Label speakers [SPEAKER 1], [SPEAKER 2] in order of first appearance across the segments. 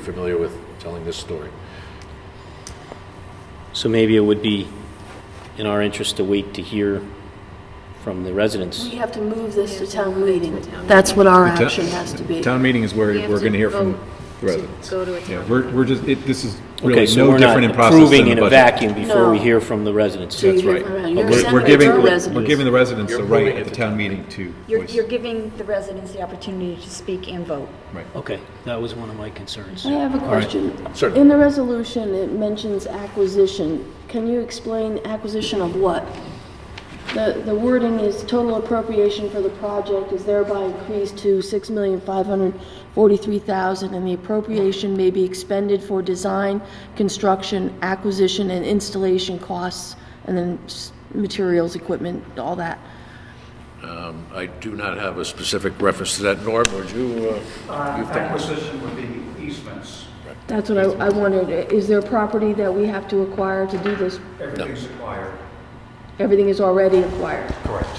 [SPEAKER 1] familiar with telling this story.
[SPEAKER 2] So maybe it would be in our interest to wait to hear from the residents.
[SPEAKER 3] We have to move this to town meeting. That's what our
[SPEAKER 4] Town-
[SPEAKER 3] action has to be.
[SPEAKER 4] Town meeting is where
[SPEAKER 5] have
[SPEAKER 4] we're
[SPEAKER 5] to
[SPEAKER 4] going to hear from
[SPEAKER 5] vote
[SPEAKER 4] the
[SPEAKER 5] to
[SPEAKER 4] residents.
[SPEAKER 5] go to a town
[SPEAKER 4] Yeah, we're, we're just, it, this is
[SPEAKER 2] Okay,
[SPEAKER 4] really
[SPEAKER 2] so
[SPEAKER 4] no
[SPEAKER 2] we're
[SPEAKER 4] different in
[SPEAKER 2] not
[SPEAKER 4] process than
[SPEAKER 2] approving in
[SPEAKER 4] the
[SPEAKER 2] a
[SPEAKER 4] budget.
[SPEAKER 2] vacuum before we
[SPEAKER 3] No.
[SPEAKER 2] hear from the residents.
[SPEAKER 3] So you
[SPEAKER 4] That's
[SPEAKER 3] hear
[SPEAKER 4] right.
[SPEAKER 3] from-
[SPEAKER 4] But
[SPEAKER 3] You're
[SPEAKER 4] We're, we're
[SPEAKER 3] sending
[SPEAKER 4] giving,
[SPEAKER 3] your
[SPEAKER 4] we're
[SPEAKER 3] residents.
[SPEAKER 4] giving the residents the
[SPEAKER 1] You're
[SPEAKER 4] right
[SPEAKER 1] moving
[SPEAKER 4] at
[SPEAKER 1] it
[SPEAKER 4] the
[SPEAKER 1] to
[SPEAKER 4] town meeting to
[SPEAKER 6] You're,
[SPEAKER 4] voice.
[SPEAKER 6] you're giving the residents the opportunity to speak and vote.
[SPEAKER 4] Right.
[SPEAKER 2] Okay, that was one of my concerns.
[SPEAKER 3] I have a question.
[SPEAKER 1] Certainly.
[SPEAKER 3] In the resolution, it mentions acquisition. Can you explain acquisition of what? The, the wording is total appropriation for the project is thereby increased to six million five hundred forty-three thousand, and the appropriation may be expended for design, construction, acquisition, and installation costs, and then s- materials, equipment, all that.
[SPEAKER 1] I do not have a specific reference to that, Norm, would you? uh,
[SPEAKER 7] Uh,
[SPEAKER 1] you've done this.
[SPEAKER 7] Acquisition would be easements.
[SPEAKER 3] That's what I, I wondered, is there property that we have to acquire to do this?
[SPEAKER 7] Everything's acquired.
[SPEAKER 3] Everything is already acquired.
[SPEAKER 7] Correct.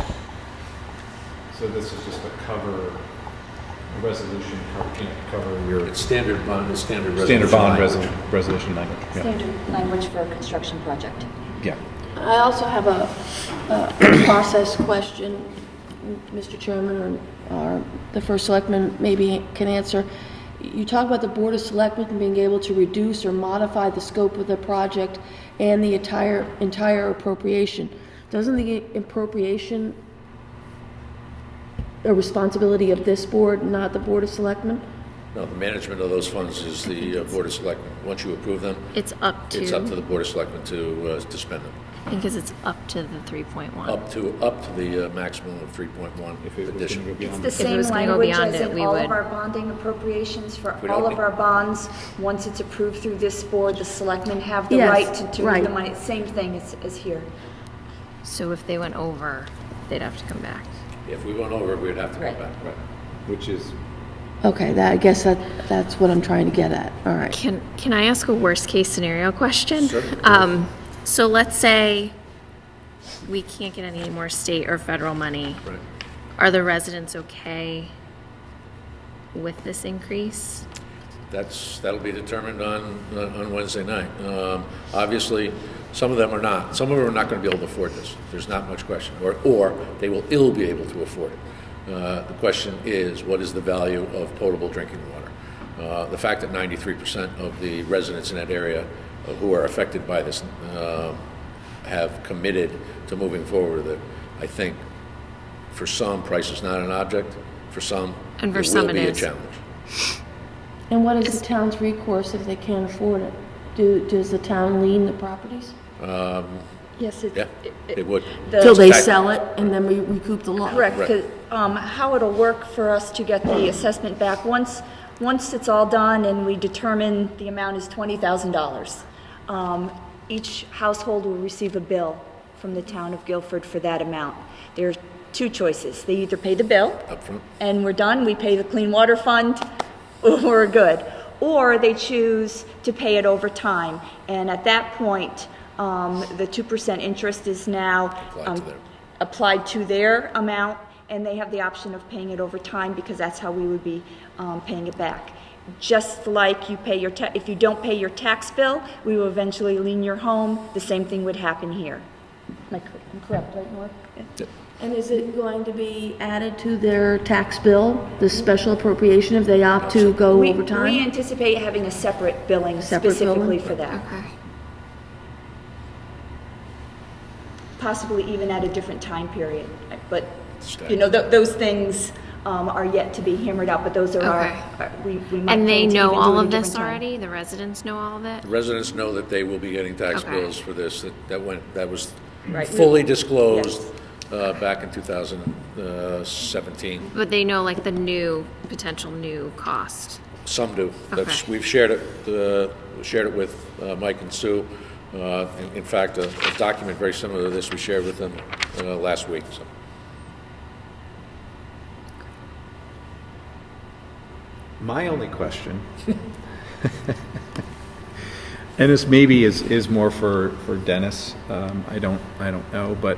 [SPEAKER 4] So this is just a cover, a resolution, cover- you know, cover your
[SPEAKER 1] It's standard bond, it's standard resolution.
[SPEAKER 4] standard bond
[SPEAKER 1] language.
[SPEAKER 4] resolu- resolution language. Yeah.
[SPEAKER 5] Standard language for a construction project.
[SPEAKER 4] Yeah.
[SPEAKER 3] I also have a, a process question, Mr. Chairman, or, or the first selectman maybe can answer. You talk about the Board of Selectmen being able to reduce or modify the scope of the project and the entire, entire appropriation. Doesn't the appropriation a responsibility of this board, not the Board of Selectmen?
[SPEAKER 1] No, the management of those funds is the uh, Board of Selectmen. Once you approve them,
[SPEAKER 8] It's up to.
[SPEAKER 1] it's up to the Board of Selectmen to, uh, to spend them.
[SPEAKER 8] Because it's up to the 3.1.
[SPEAKER 1] Up to, up to the uh, maximum of 3.1
[SPEAKER 4] If it was going to
[SPEAKER 1] addition.
[SPEAKER 4] go
[SPEAKER 6] It's
[SPEAKER 4] beyond,
[SPEAKER 6] the
[SPEAKER 4] that.
[SPEAKER 8] it
[SPEAKER 6] same
[SPEAKER 8] was gonna go
[SPEAKER 6] language
[SPEAKER 8] beyond
[SPEAKER 6] as
[SPEAKER 8] it,
[SPEAKER 6] in
[SPEAKER 8] we
[SPEAKER 6] all
[SPEAKER 8] would-
[SPEAKER 6] of our bonding appropriations for
[SPEAKER 1] We don't
[SPEAKER 6] all
[SPEAKER 1] need-
[SPEAKER 6] of our bonds. Once it's approved through this board, the selectmen have the
[SPEAKER 3] Yes,
[SPEAKER 6] right to do
[SPEAKER 3] right.
[SPEAKER 6] the money. Same thing as, as here.
[SPEAKER 8] So if they went over, they'd have to come back.
[SPEAKER 1] If we went over, we'd have to go
[SPEAKER 6] Right.
[SPEAKER 1] back.
[SPEAKER 4] Right. which is,
[SPEAKER 3] Okay, that, I guess that, that's what I'm trying to get at, all right.
[SPEAKER 8] Can, can I ask a worst-case scenario question?
[SPEAKER 1] Sure.
[SPEAKER 8] Um, So let's say we can't get any more state or federal money.
[SPEAKER 1] Right.
[SPEAKER 8] Are the residents okay with this increase?
[SPEAKER 1] That's, that'll be determined on, on Wednesday night. Um, Obviously, some of them are not, some of them are not going to be able to afford this, there's not much question, or, or they will ill be able to afford it. Uh, The question is, what is the value of potable drinking water? Uh, The fact that 93% of the residents in that area uh, who are affected by this um, have committed to moving forward with it, I think, for some, price is not an object, for some,
[SPEAKER 8] And for
[SPEAKER 1] it
[SPEAKER 8] some
[SPEAKER 1] will
[SPEAKER 8] it
[SPEAKER 1] be a
[SPEAKER 8] is.
[SPEAKER 1] challenge.
[SPEAKER 3] And what is the town's recourse if they can't afford it? Do, does the town lien the properties?
[SPEAKER 6] Yes, it's.
[SPEAKER 1] Yeah, it would.
[SPEAKER 3] Till they
[SPEAKER 1] Exactly.
[SPEAKER 3] sell it and then we recoup the loss?
[SPEAKER 6] Correct,
[SPEAKER 1] Right.
[SPEAKER 6] 'cause, um, how it'll work for us to get the assessment back, once, once it's all done and we determine the amount is twenty thousand dollars, um, each household will receive a bill from the town of Guilford for that amount. There are two choices, they either pay the bill,
[SPEAKER 1] Upfront.
[SPEAKER 6] and we're done, we pay the Clean Water Fund, we're good. Or they choose to pay it over time, and at that point, um, the 2% interest is now.
[SPEAKER 1] Applied to
[SPEAKER 6] um,
[SPEAKER 1] their-
[SPEAKER 6] Applied to their amount, and they have the option of paying it over time, because that's how we would be um, paying it back. Just like you pay your, ta- if you don't pay your tax bill, we will eventually lien your home, the same thing would happen here. Am I cor- I'm correct, right, Norm?
[SPEAKER 3] And is it going to be added to their tax bill, the special appropriation if they opt to go
[SPEAKER 6] We-
[SPEAKER 3] over
[SPEAKER 6] We
[SPEAKER 3] time?
[SPEAKER 6] anticipate having a separate billing
[SPEAKER 3] Separate
[SPEAKER 6] specifically
[SPEAKER 3] billing?
[SPEAKER 6] for that,
[SPEAKER 8] Okay.
[SPEAKER 6] possibly even at a different time period. But,
[SPEAKER 1] Staggered.
[SPEAKER 6] you know, tho- those things um, are yet to be hammered out, but those are our,
[SPEAKER 8] Okay.
[SPEAKER 6] our- we we might.
[SPEAKER 8] And they
[SPEAKER 6] plan to
[SPEAKER 8] know
[SPEAKER 6] even do
[SPEAKER 8] all
[SPEAKER 6] it a
[SPEAKER 8] of this
[SPEAKER 6] different time.
[SPEAKER 8] already? The residents know all of it?
[SPEAKER 1] Residents know that they will be getting tax
[SPEAKER 8] Okay.
[SPEAKER 1] bills for this, that that went, that was
[SPEAKER 6] Right.
[SPEAKER 1] fully disclosed uh, back in uh, 2017.
[SPEAKER 8] But they know like the new, potential new cost?
[SPEAKER 1] Some do. That's-
[SPEAKER 8] Okay.
[SPEAKER 1] We've shared it, uh, shared it with uh, Mike and Sue. Uh, in- In fact, a a document very similar to this we shared with them uh, last week, so.
[SPEAKER 4] my only question, and this maybe is, is more for, for Dennis, um, I don't, I don't know, but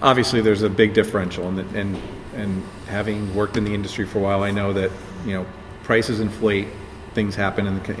[SPEAKER 4] obviously there's a big differential and, that- and, and having worked in the industry for a while, I know that, you know, prices inflate, things happen in the, co-